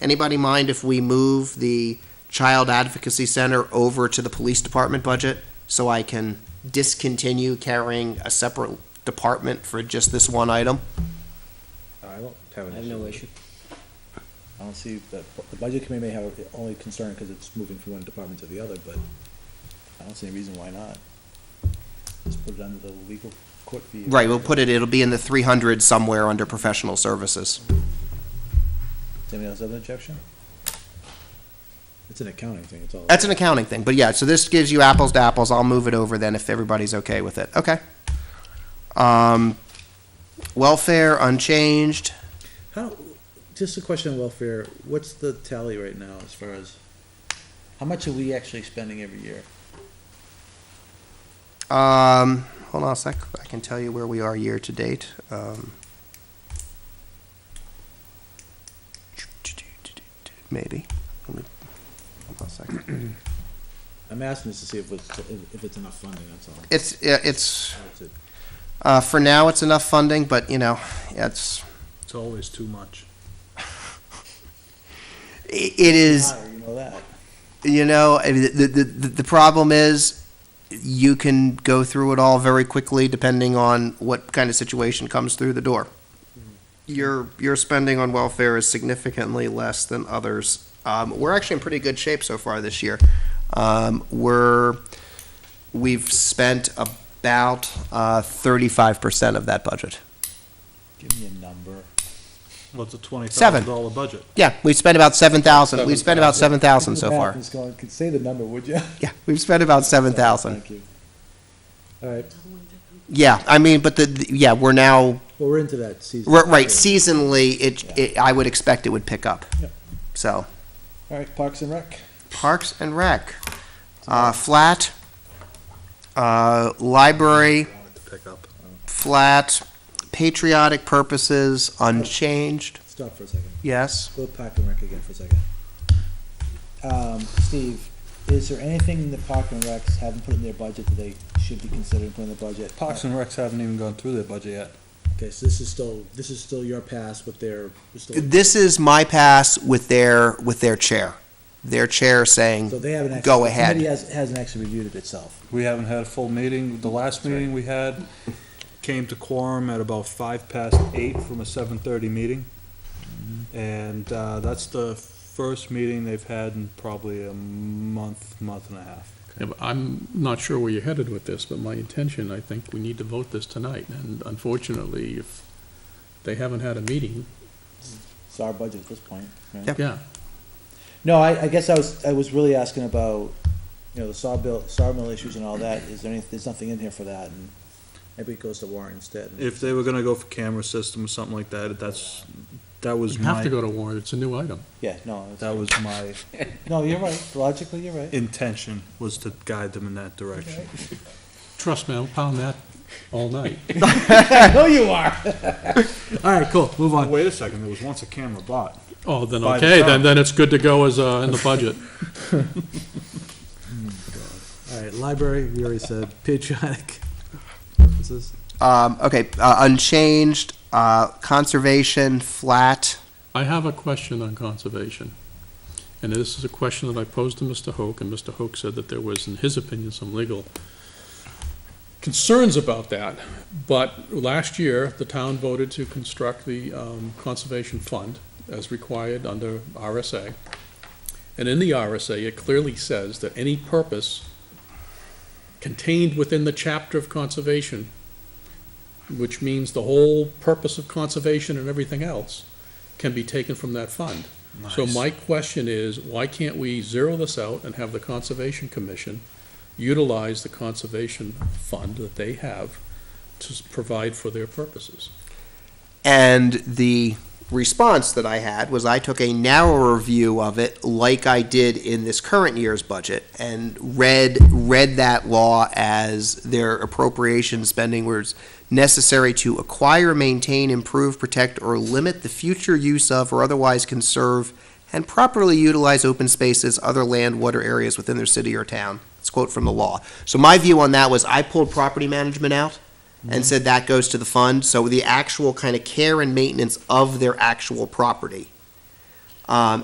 Anybody mind if we move the Child Advocacy Center over to the Police Department budget? So I can discontinue carrying a separate department for just this one item? Uh, I don't have I an have issue. no issue. I don't see that, the budget committee may have a- only concern because it's moving from one department to the other, but I don't see any reason why not. Just put it under the legal court fee. Right, we'll put it, it'll be in the three hundred somewhere under professional services. Does anybody else have an objection? It's an accounting thing, it's all. That's an accounting thing, but yeah, so this gives you apples to apples. I'll move it over then if everybody's okay with it. Okay. Um, welfare unchanged. How, just a question on welfare, what's the tally right now as far as, how much are we actually spending every year? Um, hold on a sec. I can tell you where we are year to date. Um, maybe. Let me, hold on a second. I'm asking this to see if it's, if it's enough funding, that's all. It's yeah, it's That's it. uh, for now it's enough funding, but you know it's It's always too much. it, it is. Higher, Ah, You know that. you know I mean, the, the, the, the problem is you can go through it all very quickly depending on what kind of situation comes through the door your your spending on welfare is significantly less than others um, we're actually in pretty good shape so far this year um, we're we've spent about uh, 35% of that budget Give me a number. Well, it's a Seven. twenty-thousand dollar budget. yeah we've spent about 7000 we've spent about 7000 so Math far is going- could say the number, would you? yeah we've spent about 7000 Thank you. All right, yeah i mean but the, the yeah we're now well, we're into that season. Right, right. seasonally, it, Yeah. it, I would expect it would pick up. Yep. So, All right, Parks and Rec. Parks and Rec, uh, flat, uh, library, Wanted to pick up. flat, patriotic purposes, unchanged, Stop for a second. yes. Go to Park and Rec again for a second. Um, Steve, is there anything in the Park and Recs haven't put in their budget that they should be considering putting in the budget? Parks and Recs haven't even gone through their budget yet. Okay, so this is still, this is still your pass with their, it's still- This is my pass with their, with their chair. Their chair so saying, they haven't actually. Go the ahead. Committee has, hasn't actually reviewed it itself. We haven't had a full meeting. The Mm, last meeting we had came to quorum at about five past eight from a seven thirty meeting. Mm-hmm. And, uh, that's the first meeting they've had in probably a month, month and a half. Yeah, but I'm not sure where you're headed with this, but my intention, I think we need to vote this tonight, and unfortunately, if they haven't had a meeting, It's our budget at this point, right? Yep. yeah, No, I, I guess I was, I was really asking about, you know, the sawmill, sawmill issues and all that, is there any, there's nothing in here for that, and maybe it goes to Warren instead. If they were gonna go for camera system or something like that, that's, that was you have to my, go to warrant, it's a new item. Yeah, no, it's- that was my no, you're right, logically, you're right. intention, was to guide them in that direction. Trust me, I'll pound that all night. I know you are. All right, cool, move on. Wait a second, there was once a camera bought. Oh, then, By the okay, then, time. then it's good to go as, uh, in the budget. All right, library, we already said, patriotic. um, okay, uh, unchanged, uh, conservation, flat, I have a question on conservation, and this is a question that I posed to Mr. Hoke, and Mr. Hoke said that there was, in his opinion, some legal concerns about that, but last year, the town voted to construct the um, Conservation Fund as required under RSA, and in the RSA, it clearly says that any purpose contained within the chapter of conservation, which means the whole purpose of conservation and everything else, can be taken from that fund. So my question is, why can't we zero this out and have the Conservation Commission utilize the Conservation Fund that they have to s- provide for their purposes? And the response that I had was I took a narrower view of it, like I did in this current year's budget, and read read that law as their appropriation spending was necessary to acquire, maintain, improve, protect, or limit the future use of or otherwise conserve and properly utilize open spaces, other land, water areas within their city or town. It's a quote from the law. So my view on that was I pulled property management out and said that goes to the fund. So the actual kind of care and maintenance of their actual property Um,